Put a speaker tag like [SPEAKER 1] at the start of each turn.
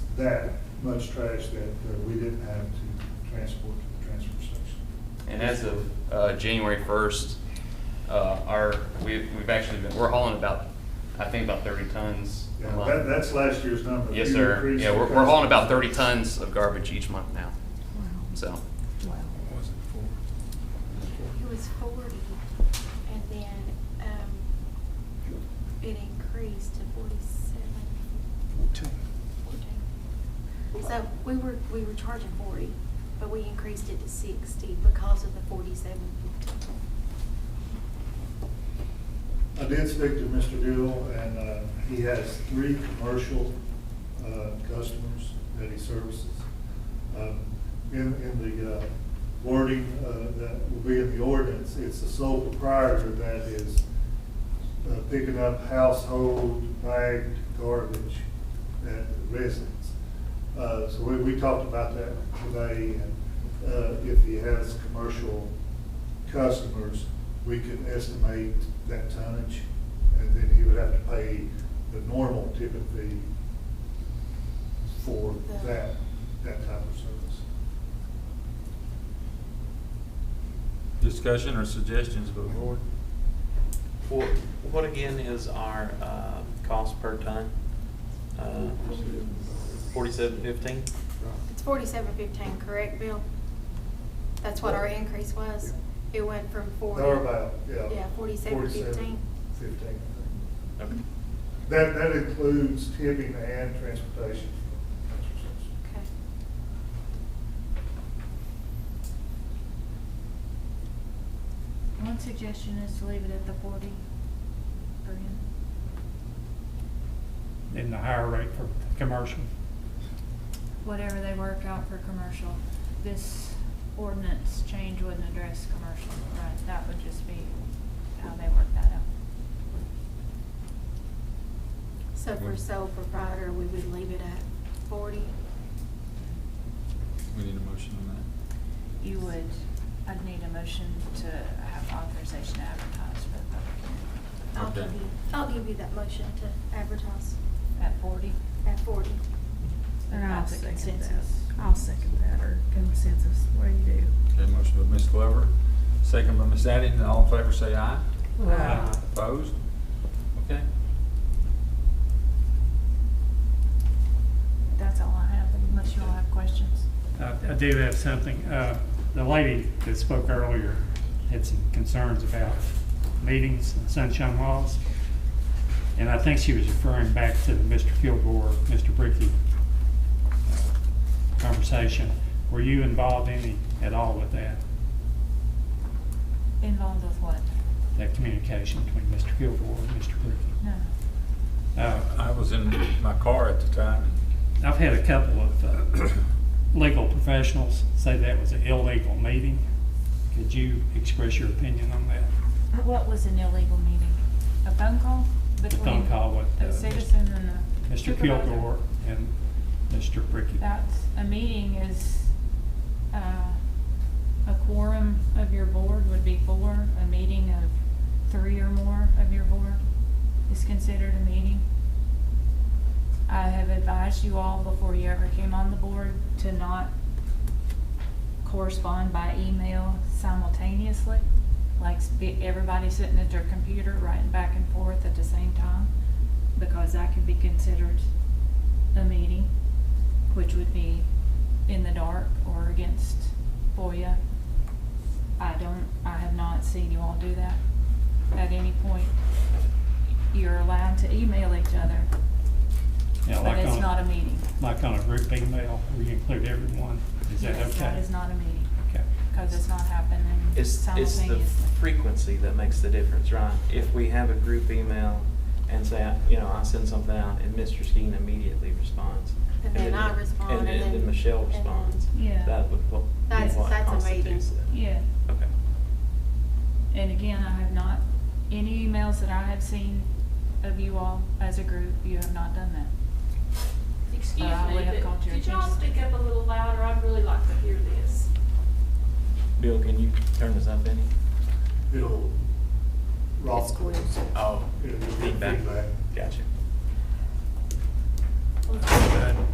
[SPEAKER 1] that much trash that uh, we didn't have to transport to the transfer station.
[SPEAKER 2] And as of uh, January first, uh, our, we've, we've actually been, we're hauling about, I think about thirty tons a
[SPEAKER 1] Yeah, that,
[SPEAKER 2] month.
[SPEAKER 1] that's last year's number.
[SPEAKER 2] Yes,
[SPEAKER 1] You
[SPEAKER 2] sir.
[SPEAKER 1] increased
[SPEAKER 2] Yeah,
[SPEAKER 1] the
[SPEAKER 2] we're, we're hauling about
[SPEAKER 1] price.
[SPEAKER 2] thirty tons of garbage each month now, so.
[SPEAKER 3] Wow.
[SPEAKER 4] was it
[SPEAKER 5] It was forty, and then, um, it increased to forty-seven, fourteen. So we were, we were charging forty, but we increased it to sixty because of the forty-seven fifty.
[SPEAKER 1] I did speak to Mr. Deal, and uh, he has three commercial uh, customers that he services. Um, In, in the uh, wording uh, that will be in the ordinance, it's the sole proprietor that is uh, picking up household bagged garbage at residents. Uh, So we, we talked about that today, and uh, if he has commercial customers, we could estimate that tonnage, and then he would have to pay the normal tipping fee for that, that type of service.
[SPEAKER 4] Discussion or suggestions by the board?
[SPEAKER 6] What, what again is our, uh, cost per ton? Uh, forty-seven fifteen?
[SPEAKER 5] It's forty-seven fifteen, correct, Bill? That's what our increase was? It went from forty.
[SPEAKER 1] Or about, yeah.
[SPEAKER 5] Yeah, forty-seven
[SPEAKER 1] 47.15,
[SPEAKER 5] fifteen.
[SPEAKER 1] I think.
[SPEAKER 6] Okay.
[SPEAKER 1] That, that includes tipping and transportation.
[SPEAKER 5] Okay.
[SPEAKER 3] One suggestion is to leave it at the forty per unit.
[SPEAKER 7] in the higher rate for commercial.
[SPEAKER 3] whatever they work out for commercial. This ordinance change wouldn't address commercial, right? That would just be how they work that out.
[SPEAKER 5] So for sole proprietor, we would leave it at forty?
[SPEAKER 4] We need a motion on that.
[SPEAKER 3] You would, I'd need a motion to have authorization to advertise for the public
[SPEAKER 5] I'll
[SPEAKER 4] Okay.
[SPEAKER 5] give you, I'll give you that motion to advertise
[SPEAKER 3] hearing at forty.
[SPEAKER 5] at forty.
[SPEAKER 8] And I'll
[SPEAKER 3] Not the
[SPEAKER 8] second that.
[SPEAKER 3] consensus.
[SPEAKER 8] I'll second that, or consensus, what do you
[SPEAKER 4] Okay, motion by Ms. Glover, second by Ms. Addington, all in favor say aye.
[SPEAKER 8] do?
[SPEAKER 7] Aye.
[SPEAKER 4] Opposed? Okay.
[SPEAKER 3] That's all I have, unless you all have questions.
[SPEAKER 7] I Uh, I do have something. Uh, The lady that spoke earlier had some concerns about meetings and sunshine laws. And I think she was referring back to the Mr. Kilgore, Mr. Bricky uh, conversation. Were you involved any at all with that,
[SPEAKER 3] Involved with what?
[SPEAKER 7] that communication between Mr. Kilgore and Mr. Bricky?
[SPEAKER 3] No.
[SPEAKER 7] Uh,
[SPEAKER 4] I was in my car at the time.
[SPEAKER 7] I've had a couple of uh, legal professionals say that was an illegal meeting. Could you express your opinion on that?
[SPEAKER 3] What was an illegal meeting? A phone call between?
[SPEAKER 7] phone call with, uh,
[SPEAKER 3] A citizen and a
[SPEAKER 7] Mr.
[SPEAKER 3] supervisor?
[SPEAKER 7] Kilgore and Mr. Bricky.
[SPEAKER 3] That's, a meeting is, uh, a quorum of your board would be four, a meeting of three or more of your board is considered a meeting. I have advised you all before you ever came on the board to not correspond by email simultaneously, like sp- everybody sitting at their computer writing back and forth at the same time, because that could be considered a meeting, which would be in the dark or against FOIA. I don't, I have not seen you all do that at any point. You're allowed to email each other,
[SPEAKER 7] Yeah,
[SPEAKER 3] but
[SPEAKER 7] like
[SPEAKER 3] it's
[SPEAKER 7] on-
[SPEAKER 3] not a meeting.
[SPEAKER 7] Like on a group email, where you include everyone, is that okay?
[SPEAKER 3] Yes, that is not a meeting,
[SPEAKER 7] Okay.
[SPEAKER 3] because it's not happening
[SPEAKER 6] It's, it's
[SPEAKER 3] simultaneously.
[SPEAKER 6] the frequency that makes the difference, right? If we have a group email and say, I- you know, I send something out and Mr. Skeen immediately responds.
[SPEAKER 5] And then I respond, and
[SPEAKER 6] And
[SPEAKER 5] then-
[SPEAKER 6] then Michelle
[SPEAKER 5] and then-
[SPEAKER 6] responds.
[SPEAKER 3] Yeah.
[SPEAKER 6] That would, what,
[SPEAKER 5] That's-
[SPEAKER 6] what
[SPEAKER 5] that's a
[SPEAKER 6] constitutes
[SPEAKER 5] meeting.
[SPEAKER 6] it.
[SPEAKER 3] Yeah.
[SPEAKER 6] Okay.
[SPEAKER 3] And again, I have not, any emails that I have seen of you all as a group, you have not done that.
[SPEAKER 9] Excuse
[SPEAKER 3] Uh, I would have
[SPEAKER 9] me,
[SPEAKER 3] called
[SPEAKER 9] but
[SPEAKER 3] your
[SPEAKER 9] could y'all
[SPEAKER 3] attention.
[SPEAKER 9] speak up a little louder? I'd really like to hear this.
[SPEAKER 6] Bill, can you turn this up any?
[SPEAKER 1] It'll rock.
[SPEAKER 8] It's cool.
[SPEAKER 6] Oh,
[SPEAKER 1] It'll give
[SPEAKER 6] feedback.
[SPEAKER 1] feedback.
[SPEAKER 6] Gotcha.